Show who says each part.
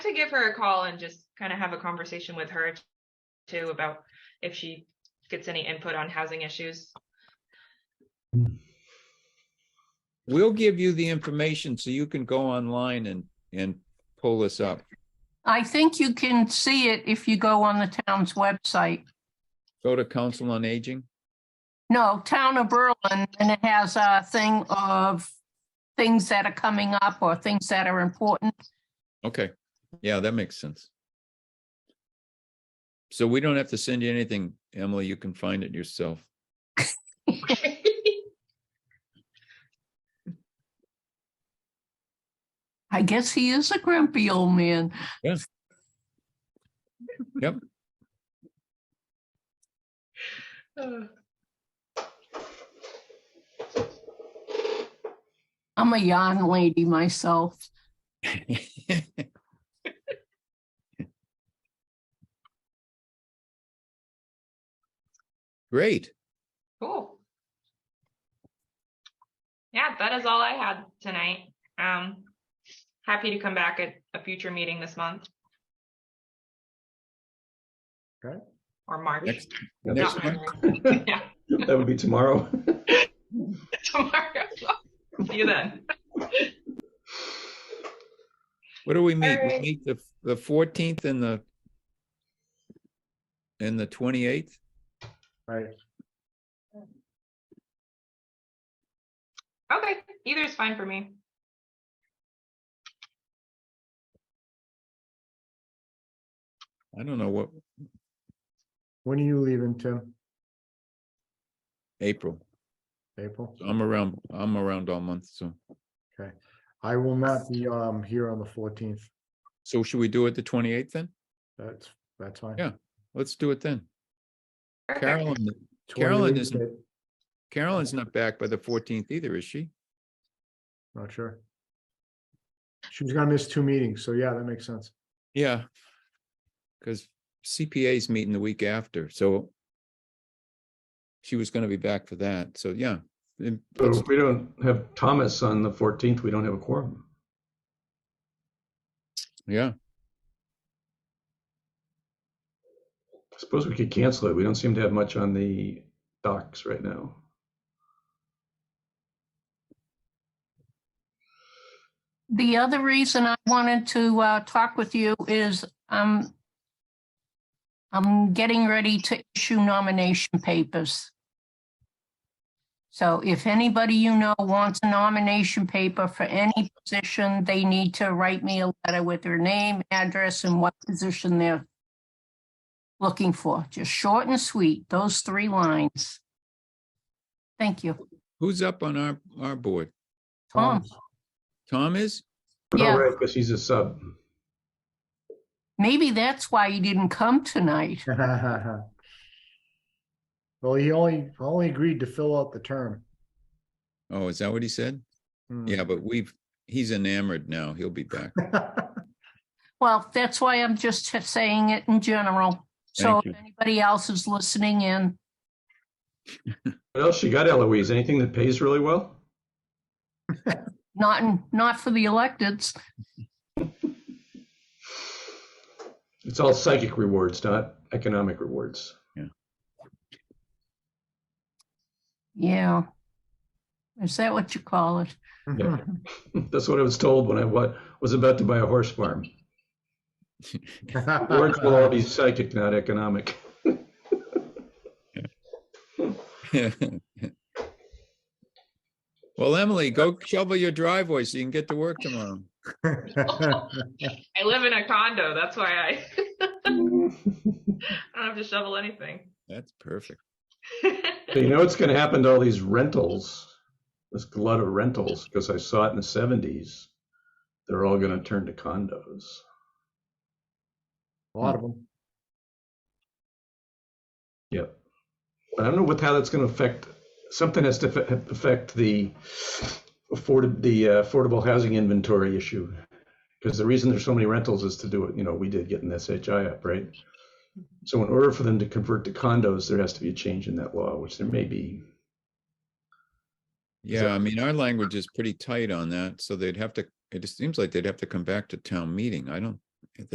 Speaker 1: to give her a call and just kind of have a conversation with her too about if she gets any input on housing issues.
Speaker 2: We'll give you the information so you can go online and, and pull this up.
Speaker 3: I think you can see it if you go on the town's website.
Speaker 2: Go to Council on Aging.
Speaker 3: No, Town of Berlin, and it has a thing of things that are coming up or things that are important.
Speaker 2: Okay, yeah, that makes sense. So we don't have to send you anything, Emily. You can find it yourself.
Speaker 3: I guess he is a grumpy old man. I'm a yarn lady myself.
Speaker 2: Great.
Speaker 1: Cool. Yeah, that is all I had tonight. Um, happy to come back at a future meeting this month.
Speaker 4: Okay.
Speaker 1: Or March.
Speaker 2: Next-
Speaker 4: Yeah,
Speaker 2: next
Speaker 1: Not
Speaker 2: month.
Speaker 1: February. Yeah,
Speaker 4: That would be tomorrow.
Speaker 1: tomorrow. See you then.
Speaker 2: What do we meet? We
Speaker 1: Alright.
Speaker 2: meet the, the fourteenth and the and the twenty-eighth?
Speaker 4: Right.
Speaker 1: Okay, either is fine for me.
Speaker 2: I don't know what,
Speaker 4: When are you leaving, Tim?
Speaker 2: April.
Speaker 4: April?
Speaker 2: I'm around, I'm around all month, so.
Speaker 4: I will not be um here on the fourteenth.
Speaker 2: So should we do it the twenty-eighth then?
Speaker 4: That's, that's fine.
Speaker 2: Yeah. Let's do it then.
Speaker 1: Perfect.
Speaker 2: Carolyn, Carolyn
Speaker 4: 28th,
Speaker 2: isn't- Carolyn's not back by the fourteenth either, is she?
Speaker 4: Not sure. She's gonna miss two meetings, so yeah, that makes sense.
Speaker 2: Yeah. Because CPA's meeting the week after, so she was gonna be back for that, so yeah. And
Speaker 5: So
Speaker 2: let's-
Speaker 5: if we don't have Thomas on the fourteenth, we don't have a quorum.
Speaker 2: Yeah,
Speaker 5: I suppose we could cancel it. We don't seem to have much on the docs right now.
Speaker 3: The other reason I wanted to uh, talk with you is um, I'm getting ready to issue nomination papers. So if anybody you know wants a nomination paper for any position, they need to write me a letter with their name, address, and what position they're looking for. Just short and sweet, those three lines. Thank you.
Speaker 2: who's up on our, our board?
Speaker 3: Tom.
Speaker 4: Tom's-
Speaker 2: Tom is?
Speaker 3: Yeah.
Speaker 5: All right, because he's a sub.
Speaker 3: Maybe that's why you didn't come tonight.
Speaker 4: Well, he only, only agreed to fill out the term.
Speaker 2: Oh, is that what he said?
Speaker 4: Hmm.
Speaker 2: Yeah, but we've, he's enamored now, he'll be back.
Speaker 3: Well, that's why I'm just saying it in general. So
Speaker 2: Thank
Speaker 3: if anybody else is listening in,
Speaker 5: What else you got, Eloise? Anything that pays really well?
Speaker 3: not, in- not for the electeds,
Speaker 5: It's all psychic rewards, not economic rewards.
Speaker 3: yeah. Is that what you call it?
Speaker 5: Yeah. That's what I was told when I wa- was about to buy a horse farm.
Speaker 4: Uh-huh.
Speaker 5: Rewards will all be psychic, not economic.
Speaker 2: Well, Emily, go shovel your driveway so you can get to work tomorrow.
Speaker 1: I live in a condo, that's why I, I don't have to shovel anything.
Speaker 2: That's perfect.
Speaker 5: So you know what's going to happen to all these rentals? This glut of rentals, because I saw it in the seventies. They're all going to turn to condos.
Speaker 4: A lot of them.
Speaker 5: Yep. But I don't know what how that's going to affect. Something has to affe- affect the afford the uh, affordable housing inventory issue, because the reason there's so many rentals is to do it. You know, we did get an SHI up, right? So in order for them to convert to condos, there has to be a change in that law, which there may be.
Speaker 2: Yeah, I mean, our language is pretty tight on that, so they'd have to, it just seems like they'd have to come back to town meeting. I don't